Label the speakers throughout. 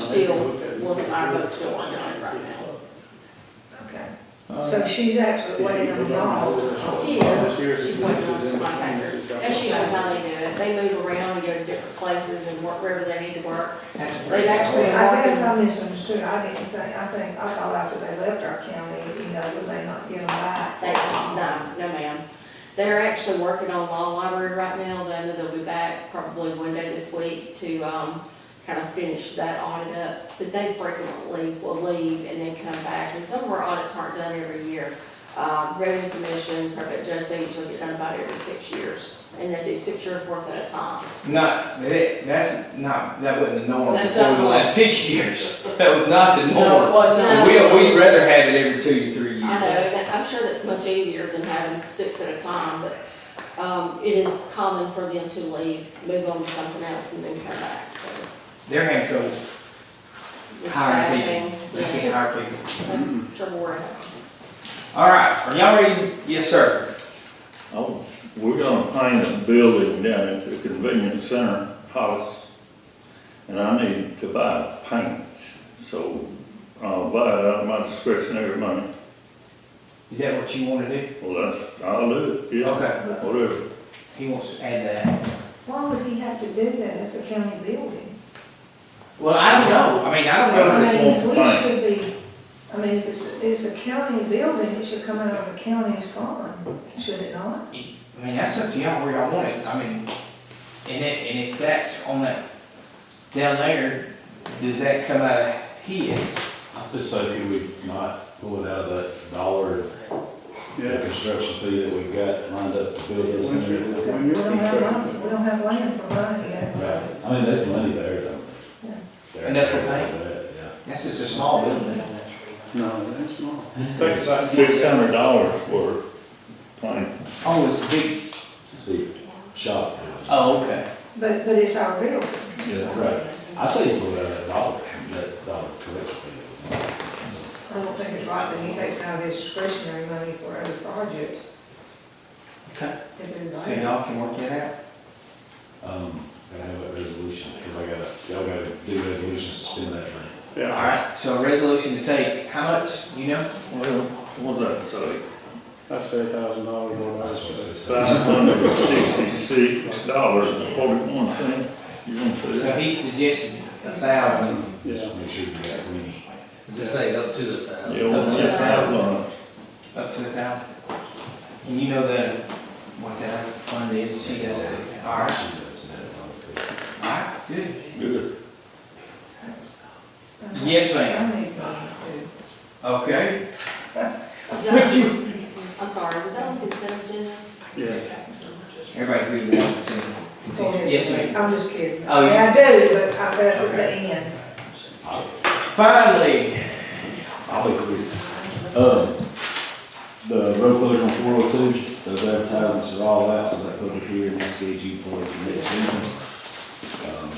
Speaker 1: still, was our vote's still uncounted right now.
Speaker 2: Okay, Uh, so she's actually waiting on y'all.
Speaker 1: She is, she's waiting on us to contact her, and she knows how they do it, they move around, and go to different places and work wherever they need to work. They've
Speaker 2: Actually,
Speaker 1: actually,
Speaker 2: I guess
Speaker 1: already-
Speaker 2: I misunderstood, I didn't think, I think, I thought after they left our county, you know, would they not get them back?
Speaker 1: they, no, no ma'am. They're actually working on law library right now, then they'll be back probably one day this week to, um, kind of finish that audit up. But they frequently will leave and then come back, and some of our audits aren't done every year. Um, revenue commission, probate judge, they usually get done about every six years, and they do six years worth at a time.
Speaker 3: Not, that, that's not, that wasn't the norm
Speaker 4: That's
Speaker 3: before
Speaker 4: not
Speaker 3: the last six years. That was not the
Speaker 4: No, it
Speaker 3: norm.
Speaker 4: was
Speaker 1: No.
Speaker 4: not.
Speaker 3: We, we'd rather have it every two, three
Speaker 1: I know,
Speaker 3: years.
Speaker 1: and I'm sure that's much easier than having six at a time, but, um, it is common for them to leave, move on to something else and then come back, so.
Speaker 3: They're having trouble
Speaker 1: it's
Speaker 3: hiring
Speaker 1: staffing,
Speaker 3: people. They
Speaker 1: yeah,
Speaker 3: can't hire people.
Speaker 1: some Trouble working.
Speaker 3: All right, are y'all ready? Yes, sir.
Speaker 5: Oh, we're gonna paint a building down at the convenience center, Hollis, and I need to buy paint, so I'll buy it out of my discretionary money.
Speaker 3: Is that what you wanna do?
Speaker 5: Well, that's, I'll do it, yeah.
Speaker 3: Okay.
Speaker 5: Whatever.
Speaker 3: He wants to add that.
Speaker 2: Why would he have to do that, it's a county building?
Speaker 3: Well, I don't know. I mean, I
Speaker 2: I
Speaker 3: don't know.
Speaker 2: mean,
Speaker 5: just want the
Speaker 2: we
Speaker 5: paint.
Speaker 2: should be, I mean, if it's, it's a county building, it should come out of the county's fund, should it not?
Speaker 3: I mean, that's up to y'all where y'all want it. I mean, and it, and if that's on that, down there, does that come out of his?
Speaker 6: I was so could we not pull it out of that dollar, the construction fee that we've got lined up to build this center?
Speaker 2: We don't have land, we don't have land for money yet,
Speaker 6: Right,
Speaker 2: so.
Speaker 6: I mean, there's money there, though.
Speaker 2: Yeah.
Speaker 6: There-
Speaker 3: Enough to pay?
Speaker 6: there, Yeah.
Speaker 3: That's just a small building.
Speaker 7: No, that's not.
Speaker 5: Six hundred dollars worth of paint.
Speaker 3: Oh, it's a big,
Speaker 6: The shop. is-
Speaker 3: oh, okay.
Speaker 2: But, but it's our building.
Speaker 6: Right, I say you pull it out of that dollar, that dollar collection fee.
Speaker 2: I don't think it's right that he takes out his discretionary money for other projects.
Speaker 3: Okay.
Speaker 2: To do
Speaker 3: So
Speaker 2: that.
Speaker 3: y'all can work that out?
Speaker 6: Um, gotta have that resolution, because I gotta, y'all gotta do resolutions to spend that money.
Speaker 3: All right, so a resolution to take, how much, you know?
Speaker 5: Well, what was that say?
Speaker 7: That's eight thousand dollars or less.
Speaker 6: That's what they say.
Speaker 5: Five hundred and sixty-six dollars and forty-one cent. You gonna say
Speaker 3: So
Speaker 5: that?
Speaker 3: he suggested a thousand.
Speaker 7: Yeah.
Speaker 6: Just make sure you got plenty.
Speaker 8: Just say up to a thousand.
Speaker 5: Yeah, what's that thousand?
Speaker 3: Up to a thousand. And you know that, what that fund is, she does it. All right, all right, good.
Speaker 5: Good.
Speaker 3: Yes, ma'am.
Speaker 2: I need money too.
Speaker 3: Okay.
Speaker 1: Is
Speaker 3: Would
Speaker 1: that-
Speaker 3: you-
Speaker 1: I'm sorry, was that on consent agenda?
Speaker 7: Yes.
Speaker 3: Everybody read along, so. continue. Yes, ma'am.
Speaker 2: I'm just kidding.
Speaker 3: Oh, you-
Speaker 2: I do, but I, that's at the end.
Speaker 3: Finally,
Speaker 6: I'll be quick. Um, the road closure on four oh two, those advertisements are all out, so that public hearing is scheduled for the next meeting. Um,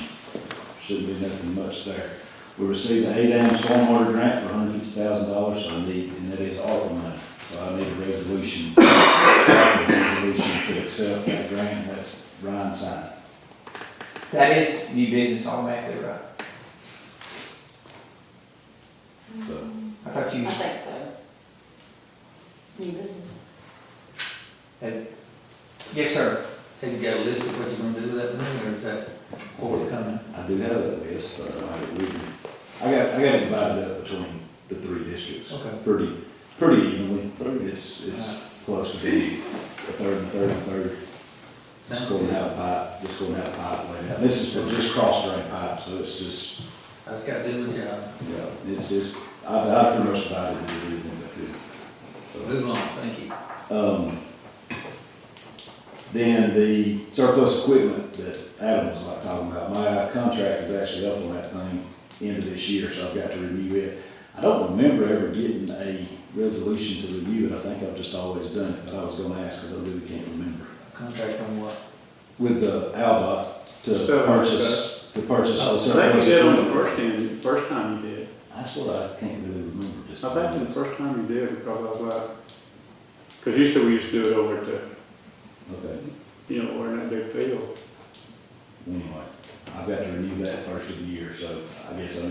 Speaker 6: Shouldn't be nothing much there. We received an eight AM stormwater grant for hundred fifty thousand dollars, so I need, and that is ARPA money, so I need a resolution. a Resolution to accept that grant, that's Ryan signed.
Speaker 3: that is new business automatically, right?
Speaker 6: So-
Speaker 3: I thought you,
Speaker 1: I think so. New business.
Speaker 3: yes, sir.
Speaker 8: Have you got a list of what you're gonna do with that money, or is that forthcoming?
Speaker 6: I do have that list, but I, we can, I got, I got it divided up between the three districts.
Speaker 8: Okay.
Speaker 6: Pretty, pretty evenly, it's, it's close to being a third, and a third, and a third. Just
Speaker 8: Sounds
Speaker 6: going
Speaker 8: good.
Speaker 6: out of pipe, just going out of pipe way down. This is for just cross drain pipe, so it's just,
Speaker 8: I just gotta do my job.
Speaker 6: you know, it's just, I, I pretty much divided it as evenly as I could. So-
Speaker 8: Move on, thank you.
Speaker 6: um, Then the surplus equipment that Adam was like talking about, my contract is actually up on that thing end of this year, so I've got to renew it. I don't remember ever getting a resolution to review it, I think I've just always done it, but I was gonna ask because I really can't remember.
Speaker 8: Contract on what?
Speaker 6: With the Alba to
Speaker 7: So,
Speaker 6: purchase, to purchase
Speaker 8: Oh,
Speaker 6: the
Speaker 7: So I think
Speaker 6: surplus
Speaker 7: you did on the
Speaker 6: equipment.
Speaker 7: first time, the first time you did.
Speaker 6: That's what I can't really remember just.
Speaker 7: I think it was the first time you did because I was like, because used to, we used to do it over at the,
Speaker 6: Okay,
Speaker 7: you know, over in that big field.
Speaker 6: anyway, I've got to renew that first of the year, so I guess I